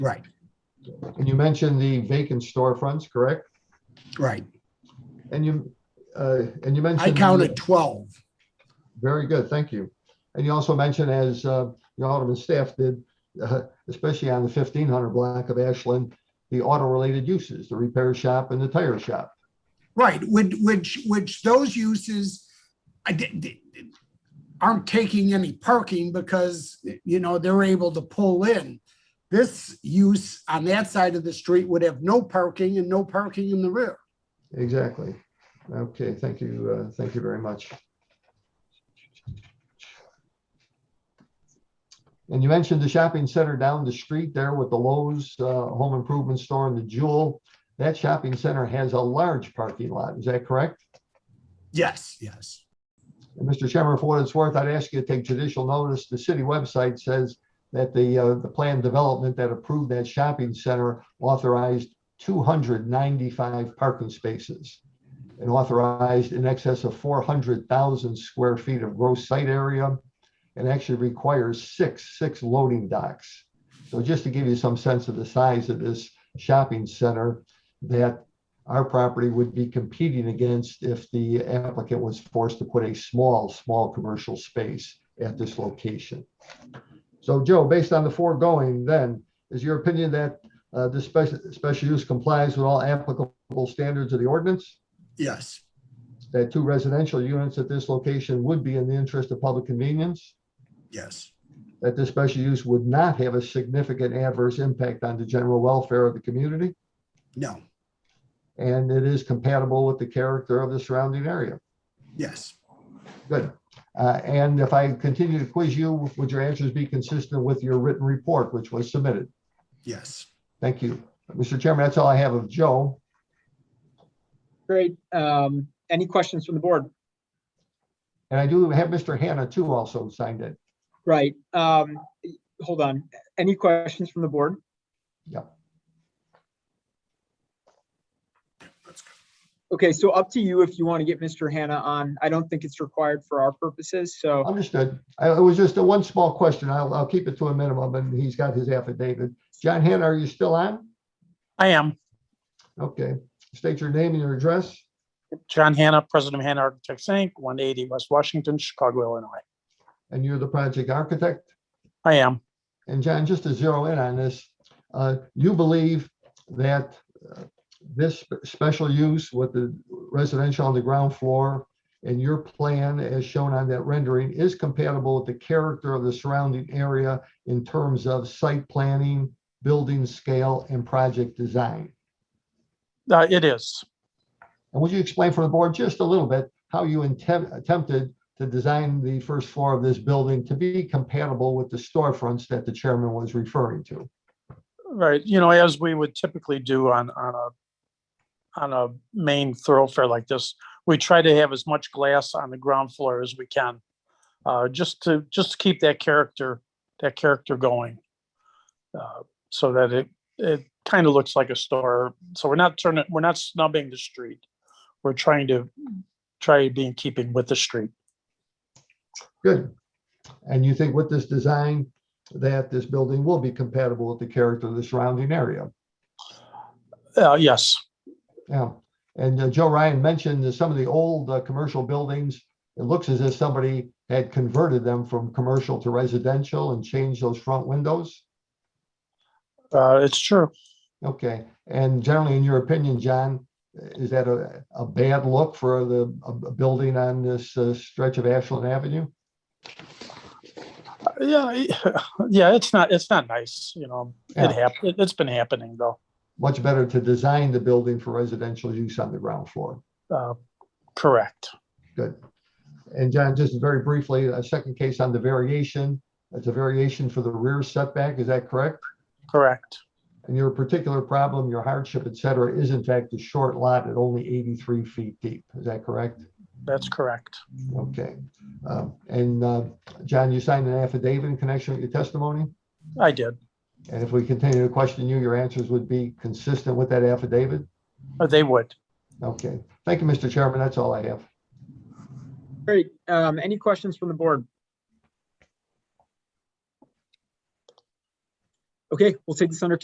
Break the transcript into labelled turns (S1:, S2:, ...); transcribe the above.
S1: Right,
S2: And you mentioned the vacant storefronts, correct?
S1: right.
S2: And you, uh, and you mentioned.
S1: I counted 12.
S2: Very good, thank you. And you also mentioned, as uh, the Alderman staff did, uh, especially on the 1500 block of Ashland, the auto-related uses, the repair shop and the tire shop.
S1: Right, which, which, which those uses, I did, did- aren't taking any parking because, you know, they're able to pull in. This use on that side of the street would have no parking and no parking in the rear.
S2: Exactly. Okay, thank you, uh, thank you very much. And you mentioned the shopping center down the street there with the Lowe's uh, Home Improvement Store and the Jewel. That shopping center has a large parking lot, is that correct?
S1: Yes, yes.
S2: And Mr. Chairman, for what it's worth, I'd ask you to take judicial notice. The city website says that the, uh, the planned development that approved that shopping center authorized two hundred ninety-five parking spaces and authorized in excess of four hundred thousand square feet of gross site area and actually requires six, six loading docks. So just to give you some sense of the size of this shopping center that our property would be competing against if the applicant was forced to put a small, small commercial space at this location. So Joe, based on the foregoing, then, is your opinion that uh, this special, special use complies with all applicable standards of the ordinance?
S1: Yes,
S2: That two residential units at this location would be in the interest of public convenience?
S1: yes,
S2: That this special use would not have a significant adverse impact on the general welfare of the community?
S1: no,
S2: And it is compatible with the character of the surrounding area?
S1: yes,
S2: Good. Uh, And if I continue to quiz you, would your answers be consistent with your written report, which was submitted?
S1: yes.
S2: Thank you. Mr. Chairman, that's all I have of Joe.
S3: Great. Um, any questions from the board?
S2: And I do have Mr. Hannah too also signed in.
S3: Right. Um, hold on. Any questions from the board?
S1: That's good.
S3: Okay, so up to you if you want to get Mr. Hannah on. I don't think it's required for our purposes, so.
S2: Understood. I- It was just a one small question. I'll, I'll keep it to a minimum, and he's got his affidavit. John Hannah, are you still on?
S4: I am.
S2: Okay. State your name and your address.
S4: John Hanna, President of Hanna Architects, Inc., 180 West Washington, Chicago, Illinois.
S2: And you're the project architect.
S4: I am.
S2: And John, just to zero in on this, uh, you believe that uh, this sp- special use with the residential on the ground floor and your plan as shown on that rendering is compatible with the character of the surrounding area in terms of site planning, building scale, and project design.
S4: Uh, It is.
S2: And would you explain for the board just a little bit how you intent- attempted to design the first floor of this building to be compatible with the storefronts that the chairman was referring to?
S4: Right, you know, as we would typically do on, on a, on a main thoroughfare like this, we try to have as much glass on the ground floor as we can. Uh, just to, just to keep that character, that character going. uh, So that it, it kind of looks like a store. So we're not turning, we're not snubbing the street. We're trying to, try to be in keeping with the street.
S2: Good. And you think with this design, that this building will be compatible with the character of the surrounding area?
S4: Uh, yes,
S2: Yeah. And uh, Joe Ryan mentioned that some of the old uh, commercial buildings, it looks as if somebody had converted them from commercial to residential and changed those front windows.
S4: uh, it's true.
S2: Okay. And generally, in your opinion, John, is that a, a bad look for the, a a building on this uh, stretch of Ashland Avenue?
S4: Yeah, I- yeah, it's not, it's not nice, you know,
S2: Yeah.
S4: it happened, it's been happening though.
S2: Much better to design the building for residential use on the ground floor.
S4: Uh, Correct.
S2: And John, just very briefly, a second case on the variation. It's a variation for the rear setback, is that correct?
S4: Correct.
S2: And your particular problem, your hardship, et cetera, is in fact the short lot at only 83 feet deep, is that correct?
S4: That's correct.
S2: Okay. Um, And uh, John, you signed an affidavit in connection with your testimony?
S4: I did.
S2: And if we continue to question you, your answers would be consistent with that affidavit?
S4: Uh, They would.
S2: Okay. Thank you, Mr. Chairman, that's all I have.
S3: Great. Um, any questions from the board? Okay, we'll take this under